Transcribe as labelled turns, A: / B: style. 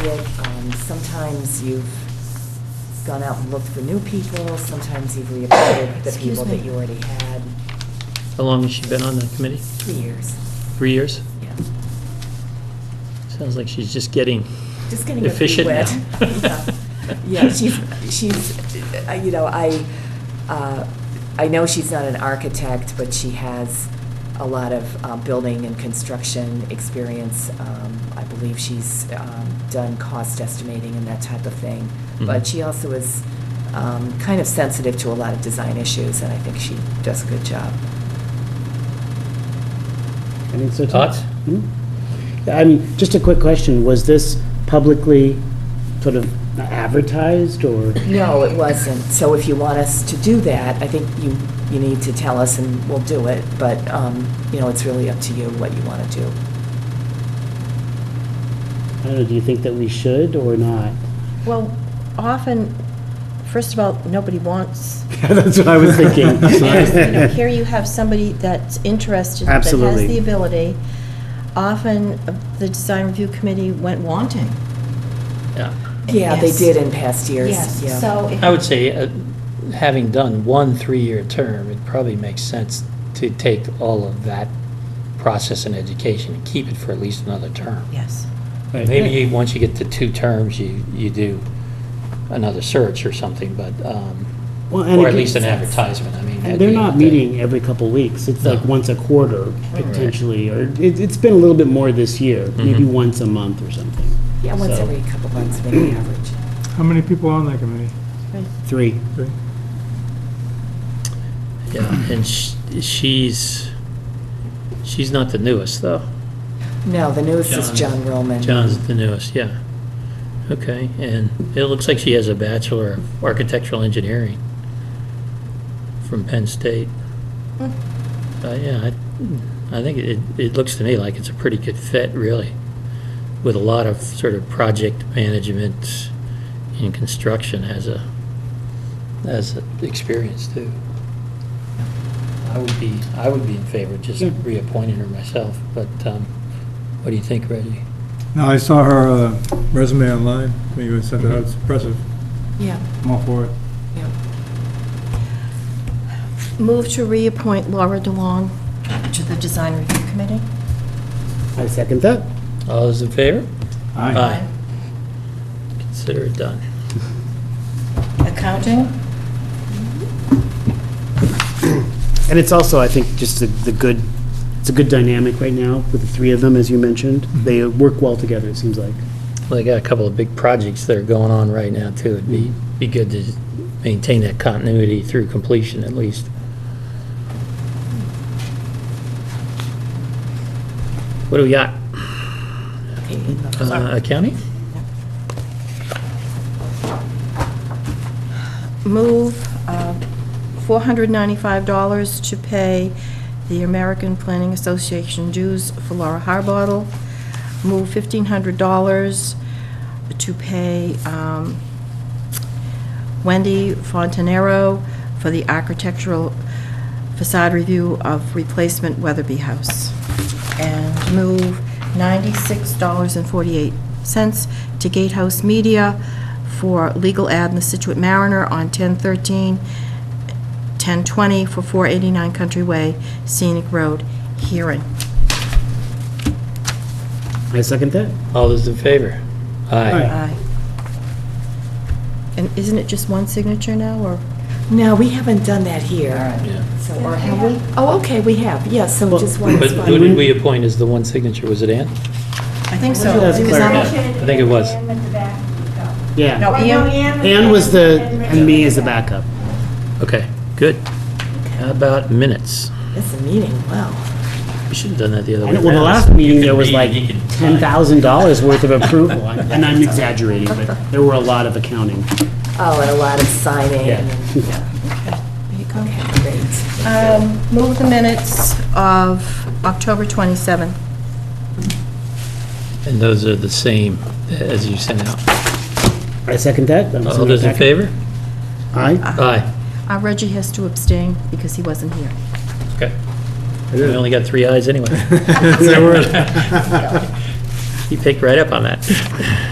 A: it. Um, Sometimes you've gone out and looked for new people, sometimes you've reappointed the
B: Excuse
A: people that
B: me.
A: you already had.
C: How long has she been on the committee?
A: Three years,
C: Three years?
A: yeah.
C: Sounds like she's just getting,
A: Just getting her feet
C: Efficient
A: wet.
C: now.
A: Yeah, Yeah, she's, she's, uh, you know, I, uh, I know she's not an architect, but she has a lot of uh, building and construction experience. Um, I believe she's um, done cost estimating and that type of thing. But
C: Mhm.
A: she also is um, kind of sensitive to a lot of design issues, and I think she does a good job.
D: I think so too.
C: Thoughts?
D: Hmm? Yeah, I mean, just a quick question, was this publicly sort of advertised or?
A: No, it wasn't. So if you want us to do that, I think you, you need to tell us and we'll do it. But, um, you know, it's really up to you what you want to do.
D: I don't know, do you think that we should or not?
B: Well, often, first of all, nobody wants,
D: That's what I was thinking.
B: here you have somebody that's interested, that has
D: Absolutely.
B: the ability. Often, uh, the design review committee went wanting.
C: yeah.
A: Yeah, they
B: Yes.
A: did in past years. Yeah.
B: Yes, so. if-
C: I would say, uh, having done one three-year term, it probably makes sense to take all of that process and education and keep it for at least another term.
B: Yes.
C: Maybe you- once you get to two terms, you, you do another search or something, but, um,
D: Well, and
C: or at
D: again-
C: least an advertisement, I mean. at
D: And
C: the
D: they're
C: end of
D: not
C: the day.
D: meeting every couple weeks, it's like
C: No.
D: once a quarter potentially, or it, it's been a little bit more this year, maybe
C: Mm-hmm.
D: once a month or something.
A: Yeah, once
D: So-
A: every couple months, maybe average.
E: How many people on that committee?
D: Three.
E: Three?
C: Yeah, and sh- she's, she's not the newest, though.
A: No, the newest is John
C: John.
A: Roman.
C: John's the newest, yeah. Okay, and it looks like she has a Bachelor of Architectural Engineering from Penn State. Uh, yeah, I, I think it, it looks to me like it's a pretty good fit, really, with a lot of sort of project management and construction as a, as an experience too. I would be, I would be in favor of just reappointing her myself, but, um, what do you think, Reggie?
E: No, I saw her uh, resume online, when you sent it out, it's impressive,
A: Yeah,
E: I'm all for it.
A: yeah.
B: Move to reappoint Laura DeLong to the design review committee?
D: I second that.
C: All those in favor? Consider it done.
B: Accounting?
D: And it's also, I think, just the, the good, it's a good dynamic right now with the three of them, as you mentioned.
C: Mm-hmm.
D: They work well together, it seems like.
C: Well, they got a couple of big projects that are going on right now, too. It'd be, be good to maintain that continuity through completion, at least. What do we got?
A: Okay, in the-
C: Uh, Accounting?
B: Move uh, $495 to pay the American Planning Association dues for Laura Harbottle. Move $1,500 to pay um, Wendy Fontanero for the architectural facade review of replacement Weatherby House. And move $96.48 to Gatehouse Media for legal ad in the Situate Mariner on 10/13, 10/20 for 489 Country Way, Scenic Road, Hearing.
D: I second that.
C: All those in favor? Aye.
B: Aye. Uh, And isn't it just one signature now, or?
A: No, we haven't done that here.
C: Yeah.
A: So, or have we? Oh, okay, we have, yes, so just one
C: But
A: is
C: who
A: fine.
C: did we appoint as the one signature? Was it Ann?
B: I think so.
D: That's
B: It was
D: clear.
B: on the-
C: I think it was.
F: Ann at the back.
D: Yeah.
B: No, Ian,
D: Anne was the, and me as the backup.
C: Okay, good. How about minutes?
A: It's a meeting, wow.
C: We should have done that the other way
D: And well, the
C: around.
D: last meeting, there
C: You
D: was
C: could
D: like
C: read, you could sign.
D: $10,000 worth of approval. And I'm exaggerating, but there were a lot of accounting.
A: Oh, and a lot of signing.
D: Yeah.
A: and- yeah.
B: there you go.
A: Okay, great.
B: Um, Move the minutes of October 27th.
C: And those are the same as you sent out.
D: I second that. That was
C: All those in
D: backup.
C: favor?
D: Aye.
C: Aye.
B: Uh, Reggie has to abstain because he wasn't here.
C: Okay. We only got three ayes anyway. You picked right up on that.